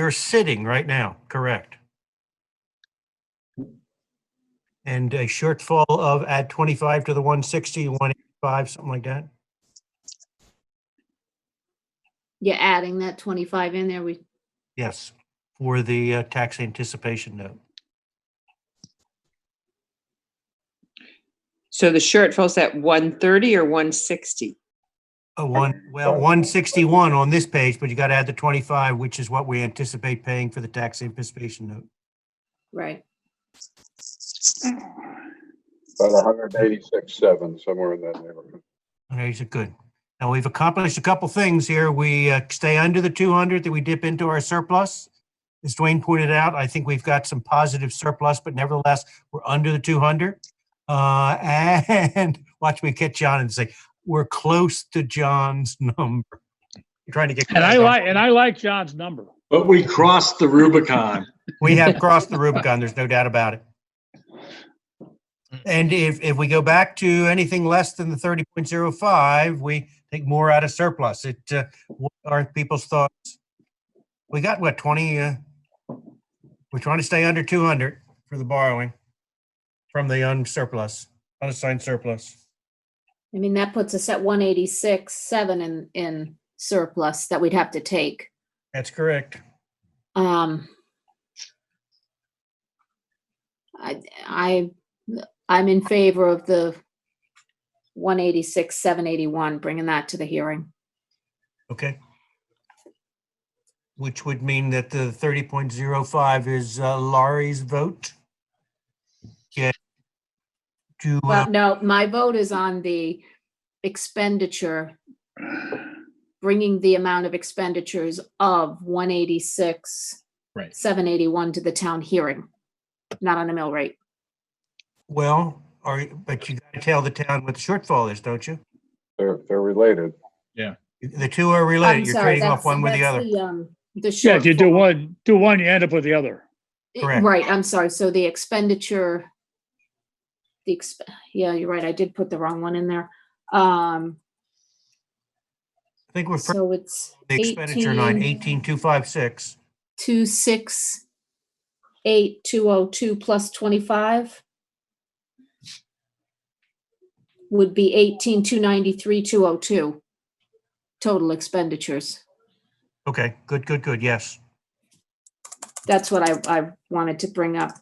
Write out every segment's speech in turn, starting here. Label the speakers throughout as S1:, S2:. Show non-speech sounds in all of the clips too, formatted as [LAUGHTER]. S1: You're sitting right now, correct? And a shortfall of add 25 to the 160, 185, something like that?
S2: Yeah, adding that twenty-five in there, we,
S1: Yes, for the uh, tax anticipation note.
S3: So the shortfall's at one thirty or one sixty?
S1: A Uh, one, well, 161 on this page, but you got to add the 25, which is what we anticipate paying for the tax anticipation note.
S2: right,
S4: About a hundred and eighty-six, seven, somewhere in that neighborhood.
S1: Okay, so good. Now, we've accomplished a couple things here. We uh, stay under the 200 that we dip into our surplus. As Dwayne pointed out, I think we've got some positive surplus, but nevertheless, we're under the 200. Uh, And [LAUGHS] watch me catch John and say, we're close to John's [LAUGHS] number. We're Trying to get.
S5: And I like, and I like John's number.
S6: But we crossed the Rubicon.
S1: We have crossed the Rubicon, there's no doubt about it. And if, if we go back to anything less than the thirty point zero five, we take more out of surplus. It, uh, what are people's thoughts? We got what, twenty, uh, we're trying to stay under two hundred for the borrowing from the unsurplus, unassigned surplus.
S2: I mean, that puts us at one eighty-six, seven in, in surplus that we'd have to take.
S1: That's correct.
S2: Um. I, I, I'm in favor of the one eighty-six, seven eighty-one, bringing that to the hearing.
S1: Okay. Which would mean that the thirty point zero five is uh, Laurie's vote? Yeah. To, uh,
S2: Well, no, my vote is on the expenditure, bringing the amount of expenditures of one eighty-six,
S6: Right.
S2: seven eighty-one to the town hearing, not on the mill rate.
S1: well, or, but you gotta tell the town what the shortfall is, don't you?
S4: They're, they're related.
S1: The two are
S2: I'm
S1: related. You're
S2: sorry,
S1: trading
S2: that's-
S1: off one with the
S2: that's
S1: other.
S2: um, The
S5: Yeah, if you do
S2: shortfall.
S5: one, do one, you end up with the other.
S2: Eh,
S1: Correct.
S2: Right, I'm sorry, so the expenditure, the exp, yeah, you're right, I did put the wrong one in there. Um,
S1: I think we're, for
S2: so it's
S1: the expenditure line, eighteen two five six.
S2: two six eight two oh two plus twenty-five would be eighteen two ninety-three two oh two total expenditures.
S1: Okay, good, good, good. Yes.
S2: That's what I, I wanted to bring up.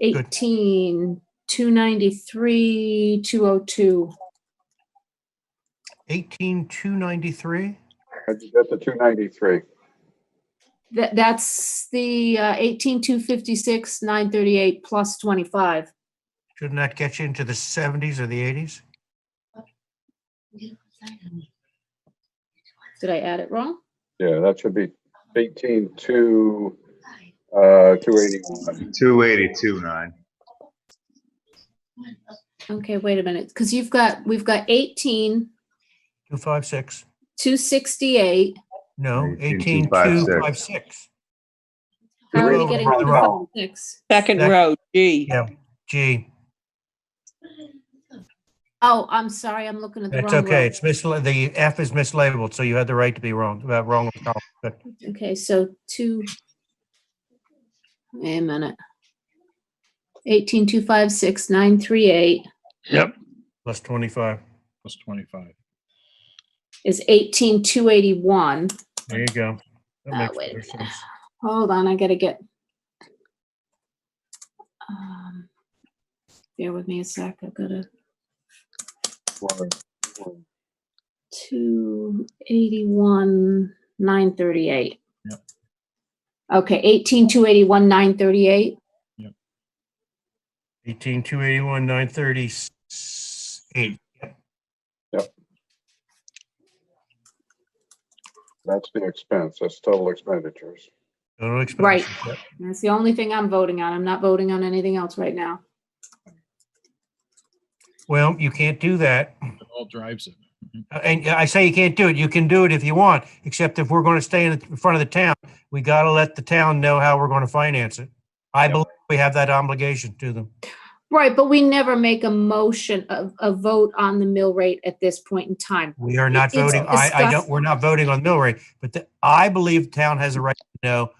S2: Eighteen two ninety-three two oh two.
S1: Eighteen two ninety-three?
S4: How'd you get the two ninety-three?
S2: That, that's the uh, eighteen two fifty-six, nine thirty-eight plus twenty-five.
S1: Shouldn't that get you into the seventies or the eighties?
S2: Did I add it wrong?
S4: Yeah, that should be eighteen to, uh, two eighty-one.
S7: 282, nine.
S2: Okay, wait a minute, because you've got, we've got eighteen,
S1: Two five six?
S2: two sixty-eight.
S1: No, eighteen two
S7: 18,256.
S1: five six.
S2: How are
S4: You're
S2: you
S4: over
S2: getting
S4: on
S2: to
S4: the row.
S2: the six?
S3: Second
S1: Sec-
S3: row, G.
S1: Yeah. Gee.
S2: Oh, I'm sorry, I'm looking at the
S1: That's
S2: wrong
S1: okay.
S2: row.
S1: It's misla, the F is mislabeled, so you had the right to be wrong, uh, wrong. with column, but
S2: Okay, so two. Wait a minute. Eighteen, two, five, six, nine, three, eight
S5: Yep.
S1: Plus 25.
S6: Plus 25.
S2: is eighteen, two eighty-one.
S1: There you go. That
S2: Uh,
S1: makes
S2: wait a
S1: better
S2: minute.
S1: sense.
S2: Hold on, I gotta get. Um, Bear with me a sec, I've got a two eighty-one, nine thirty-eight.
S6: Yep.
S2: Okay, eighteen, two eighty-one, nine thirty-eight,
S1: 18, 281, 938.
S4: That's the expense. That's total expenditures.
S1: Total expenses.
S2: Right.
S1: Yep.
S2: that's the only thing I'm voting on, I'm not voting on anything else right now.
S1: Well, you can't do that.
S6: It all drives it.
S1: Uh, And I say you can't do it. You can do it if you want, except if we're going to stay in the- in front of the town, we got to let the town know how we're going to finance it. I
S6: Yep.
S1: believe we have that obligation to them.
S2: Right, but we never make a motion, a, a vote on the mill rate at this point in time.
S1: We are not
S2: It's
S1: voting, I, I
S2: discuss-
S1: don't, we're not voting on mill rate, but the- I believe the town has a right to know